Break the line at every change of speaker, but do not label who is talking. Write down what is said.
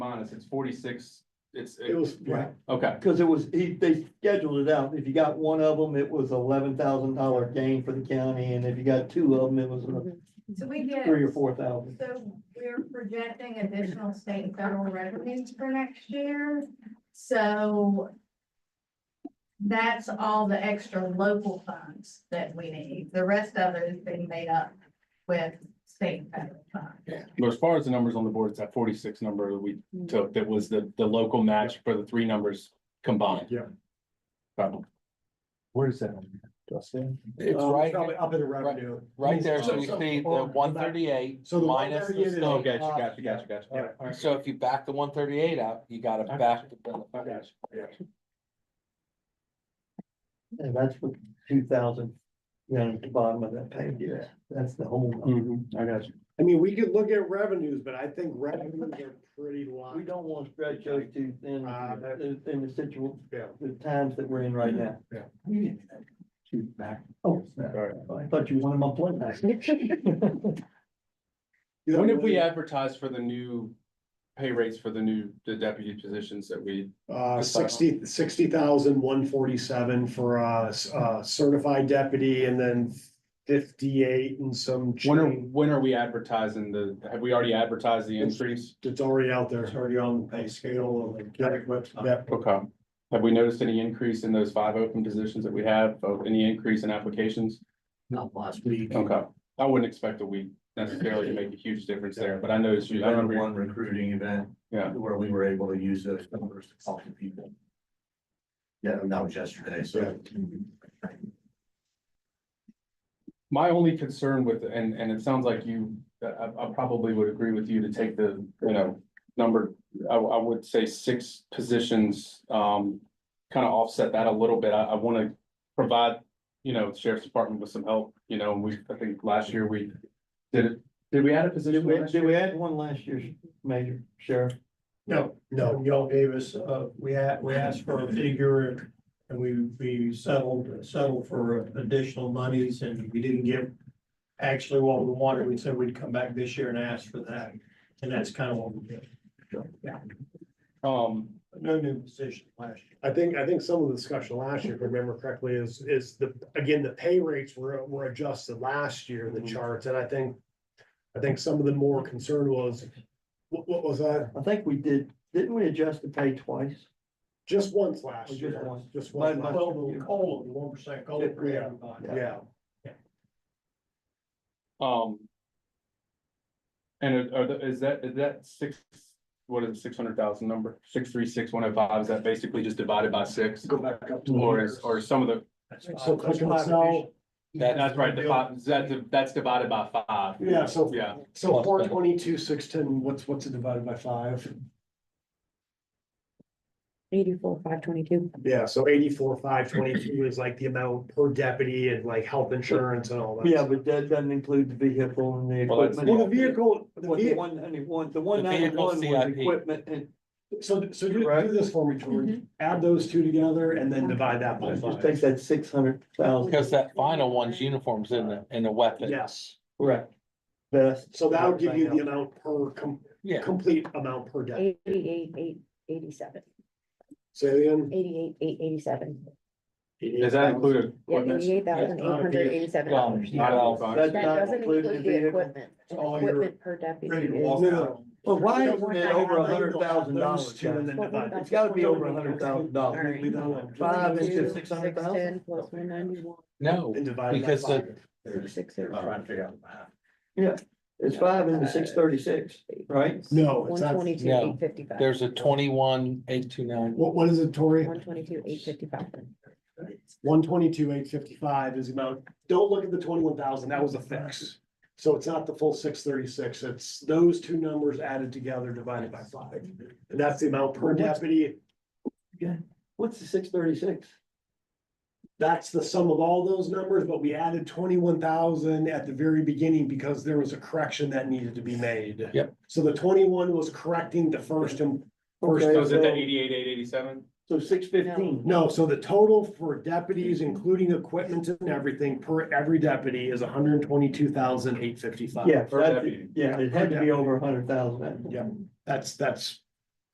this, it's forty-six, it's,
It was, right,
okay,
because it was, he, they scheduled it out. If you got one of them, it was eleven thousand dollar gain for the county, and if you got two of them, it was uh,
So we get,
three or four thousand.
so we're projecting additional state and federal revenues for next year, so. That's all the extra local funds that we need. The rest of it is being made up with state and federal funds.
But as far as the numbers on the board, it's that forty-six number that we
Mm-hmm.
took, that was the, the local match for the three numbers combined.
Yeah.
Probably.
Where is that? Justin?
It's
Um,
right,
probably Up in the revenue.
right there, so
So-
you
so-
see the
or-
one thirty-eight
So the
minus the
138 is-
state.
Oh,
Oh,
gotcha,
gotcha,
gotcha,
gotcha,
gotcha,
gotcha,
All right, all
gotcha.
right.
So if you back the one thirty-eight out, you gotta
I
back the.
I got you, yeah.
And that's what two thousand, you know, at the bottom of that page,
Yeah.
that's the whole. number.
Mm-hmm.
Mhm, I got you.
I mean, we could look at revenues, but I think revenues are pretty
We
locked.
don't want to stretch those two thin,
Uh, that-
in, in the situ,
Yeah.
the times that we're in right now.
Yeah.
Yeah. Shoot back. Oh, I thought you wanted my plug back.
When did we advertise for the new pay rates for the new, the deputy positions that we?
Uh, sixty, sixty thousand, one forty-seven for a, uh certified deputy and then fifty-eight and some
When are,
change.
when are we advertising the, have we already advertised the increase?
It's already out there. It's already on the pay scale of the county website.
Okay. Have we noticed any increase in those five open positions that we have, of any increase in applications?
Not last week.
Okay, I wouldn't expect that we necessarily to make a huge difference there, but I noticed
We
you, I
had
remember,
one recruiting event.
Yeah.
Where we were able to use those numbers to talk to people. Yeah, and that was yesterday, so.
my only concern with, and, and it sounds like you, I, I I probably would agree with you to take the, you know, number, I, I would say six positions, um, kind of offset that a little bit. I, I want to provide, you know, sheriff's department with some help, you know, and we, I think last year we did it, did we add a
Did
position?
we,
last
did
year?
we add one last year's major sheriff?
No, no, y'all gave us, uh, we had, we asked for a figure and we, we settled, settled for additional monies and we didn't give actually what we wanted. We said we'd come back this year and ask for that. And that's kind of what we did.
Um,
No new position last year.
I think, I think some of the discussion last year, if I remember correctly, is, is the, again, the pay rates were, were adjusted last year in the
Mhm.
charts, and I think. I think some of the more concern was, what, what was that?
I think we did, didn't we adjust the pay twice?
Just once last
Just
year,
once.
just once.
My- my-
last
Well,
year.
the COLA, the one percent COLA for everybody.
Yeah.
Yeah,
Um. And are, are the- is that, is that six, what is it, six hundred thousand number, six, three, six, one oh five, is that basically just divided by six?
go back up to.
Or is, or some of the,
That's fine.
So click on
That's
sell.
that- that's right, the five, that's, that's divided by five.
Yeah, so,
Yeah,
so four twenty-two, six ten, what's, what's it divided by five?
Eighty-four, five twenty-two.
Yeah, so eighty-four, five twenty-two is like the amount per deputy and like health insurance and all that.
Yeah, but that doesn't include the vehicle and the
Well, that's-
equipment.
Well, the vehicle, the
What the
vehicle.
one, and the one, the one
vehicle
ninety-one was
CIP.
equipment and
So, so do,
Right?
do this for me, George, add those two together and then divide that by
just take
five.
that six hundred thousand,
Because that final one's uniforms in the, in the weapon.
Yes,
correct. Best.
so that'll give you the amount per, com-
Yeah.
complete amount per deputy.
Eighty-eight, eight, eighty-seven,
Say again,
eighty-eight, eight, eighty-seven.
does that include
Yeah,
equipment?
eighty-eight thousand, eight hundred eighty-seven
Well,
dollars.
not all
That's
five.
That
not
doesn't
including
include
the
the
vehicle.
equipment.
It's all your-
Equipment per deputy is.
No.
But why
Don't
isn't
worry,
it
I
over
got
a hundred
those
thousand
two
dollars,
and then
guys?
What we
divide.
got
It's gotta be over a
All
hundred thousand dollars.
right.
Five into
22,
six hundred thousand?
610 Plus one ninety-one,
No,
And divide it by
Because the-
five.
six, six,
I'm
zero.
trying to figure out the math.
It's five into six thirty-six, right?
No, it's
One
not,
twenty-two,
No.
eight fifty-five.
there's a twenty-one, eight, two, nine.
what, what is it, Tori?
One twenty-two, eight fifty-five.
One twenty-two, eight fifty-five is the amount, don't look at the twenty-one thousand, that was a fix. So it's not the full six thirty-six, it's those two numbers added together divided by five. And that's the amount per deputy,
What's the six thirty-six?
that's the sum of all those numbers, but we added twenty-one thousand at the very beginning because there was a correction that needed to be made.
Yep.
So the twenty-one was correcting the first and, first,
Okay.
So is it that eighty-eight, eight eighty-seven?
So six fifteen.
no, so the total for deputies, including equipment and everything, per every deputy is 122,855. hundred and twenty-two thousand, eight fifty-five.
Yeah,
Per
that's-
deputy.
yeah, it had to be over a hundred thousand.
Yeah, that's, that's